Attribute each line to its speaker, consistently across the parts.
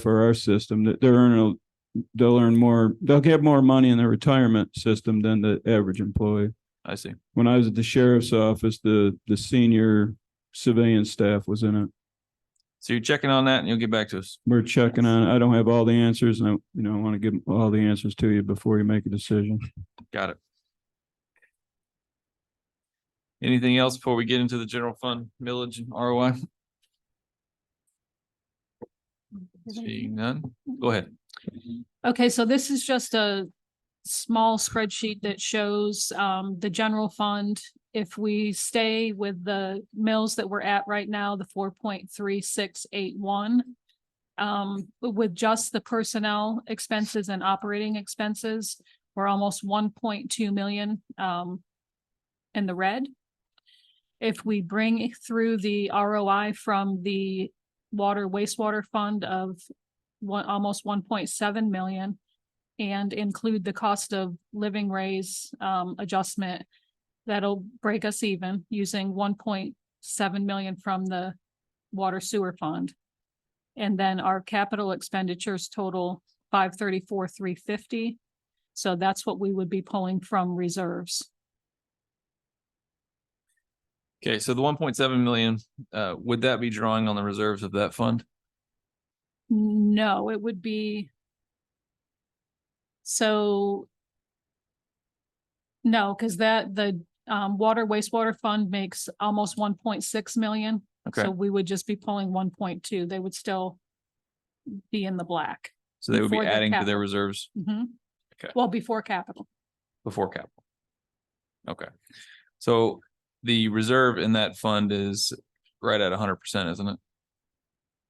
Speaker 1: for our system, that they're earning, a- they'll earn more, they'll get more money in the retirement system than the average employee.
Speaker 2: I see.
Speaker 1: When I was at the sheriff's office, the, the senior civilian staff was in it.
Speaker 2: So you're checking on that and you'll get back to us.
Speaker 1: We're checking on, it. I don't have all the answers and I, you know, I want to give all the answers to you before you make a decision.
Speaker 2: Got it. Anything else before we get into the general fund millage and ROI? Seeing none, go ahead.
Speaker 3: Okay, so this is just a small spreadsheet that shows um the general fund. If we stay with the mills that we're at right now, the four point three six eight one. Um, with just the personnel expenses and operating expenses, we're almost one point two million um in the red. If we bring through the ROI from the water wastewater fund of one, almost one point seven million. And include the cost of living raise um adjustment. That'll break us even using one point seven million from the water sewer fund. And then our capital expenditures total five thirty-four, three fifty. So that's what we would be pulling from reserves.
Speaker 2: Okay, so the one point seven million, uh, would that be drawing on the reserves of that fund?
Speaker 3: No, it would be. So. No, because that, the um water wastewater fund makes almost one point six million.
Speaker 2: Okay,
Speaker 3: So we would just be pulling one point two. They would still. Be in the black.
Speaker 2: so they would be
Speaker 3: before the
Speaker 2: adding to their
Speaker 3: capital.
Speaker 2: reserves
Speaker 3: Mhm.
Speaker 2: Okay.
Speaker 3: Well, before capital.
Speaker 2: before capital. Okay, so the reserve in that fund is right at hundred percent, isn't it?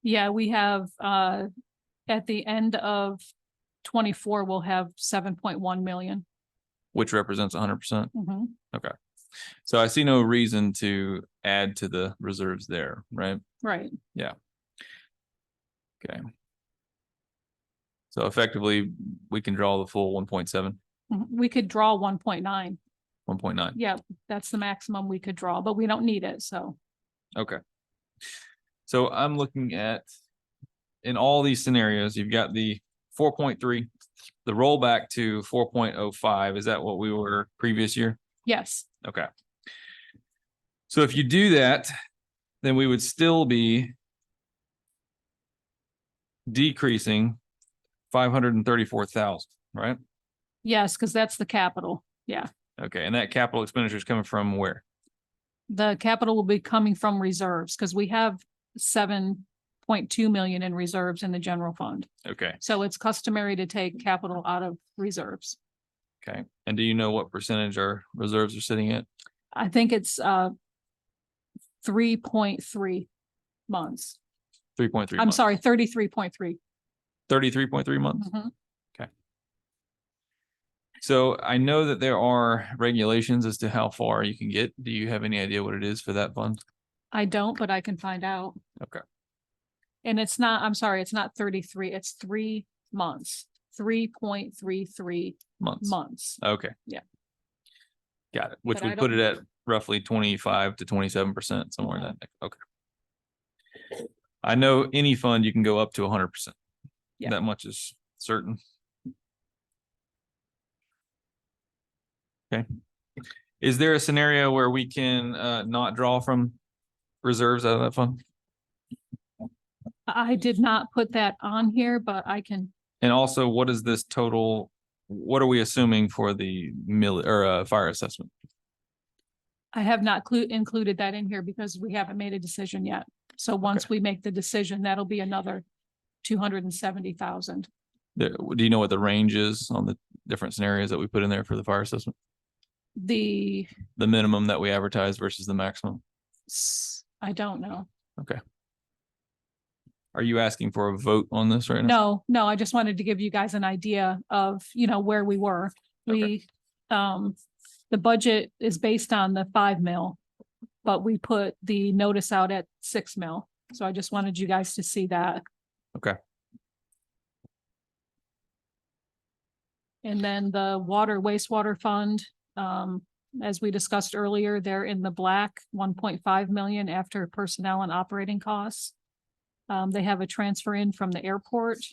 Speaker 3: Yeah, we have uh, at the end of twenty-four, we'll have seven point one million.
Speaker 2: Which represents hundred percent.
Speaker 3: Mhm.
Speaker 2: So I see no reason to add to the reserves there, right?
Speaker 3: Right,
Speaker 2: So effectively, we can draw the full 1.7,
Speaker 3: Mhm. we could draw one point nine.
Speaker 2: 1.9.
Speaker 3: Yeah, that's the maximum we could draw, but we don't need it, so.
Speaker 2: Okay. So I'm looking at, in all these scenarios, you've got the four point three, the rollback to four point oh five. Is that what we were previous year?
Speaker 3: Yes,
Speaker 2: Okay. So if you do that, then we would still be decreasing five hundred and thirty-four thousand, right?
Speaker 3: yes, because that's the capital.
Speaker 2: Okay, and that capital expenditure is coming from where?
Speaker 3: The capital will be coming from reserves because we have seven point two million in reserves in the general fund.
Speaker 2: Okay,
Speaker 3: So it's customary to take capital out of reserves.
Speaker 2: okay. And do you know what percentage our reserves are sitting at?
Speaker 3: I think it's uh three point three months.
Speaker 2: Three point three.
Speaker 3: I'm sorry, thirty-three point three. Mm-hmm.
Speaker 2: Thirty-three point three months. So I know that there are regulations as to how far you can get. Do you have any idea what it is for that fund?
Speaker 3: I don't, but I can find out.
Speaker 2: Okay.
Speaker 3: And it's not, I'm sorry, it's not thirty-three, it's three months, three point three three
Speaker 2: Months?
Speaker 3: months.
Speaker 2: Okay.
Speaker 3: Yeah.
Speaker 2: Got it, which
Speaker 3: But I
Speaker 2: would put
Speaker 3: don't-
Speaker 2: it at roughly twenty-five to twenty-seven percent, somewhere in that, neck. okay. I know any fund you can go up to hundred percent.
Speaker 3: Yeah.
Speaker 2: That much is certain. Okay. Is there a scenario where we can uh not draw from reserves out of that fund?
Speaker 3: I did not put that on here, but I can,
Speaker 2: And also, what is this total? What are we assuming for the mill or uh fire assessment?
Speaker 3: I have not clu- included that in here because we haven't made a decision yet. So once we make the decision, that'll be another two hundred and seventy thousand.
Speaker 2: There- Do you know what the range is on the different scenarios that we put in there for the fire assessment?
Speaker 3: The,
Speaker 2: the minimum that we advertise versus the maximum?
Speaker 3: s- I don't know.
Speaker 2: Are you asking for a vote on this right now?
Speaker 3: No, no, I just wanted to give you guys an idea of, you know, where we were.
Speaker 2: Okay.
Speaker 3: We, um, the budget is based on the five mil. But we put the notice out at six mil, so I just wanted you guys to see that.
Speaker 2: Okay.
Speaker 3: And then the water wastewater fund, um, as we discussed earlier, they're in the black, one point five million after personnel and operating costs. Um, they have a transfer in from the airport.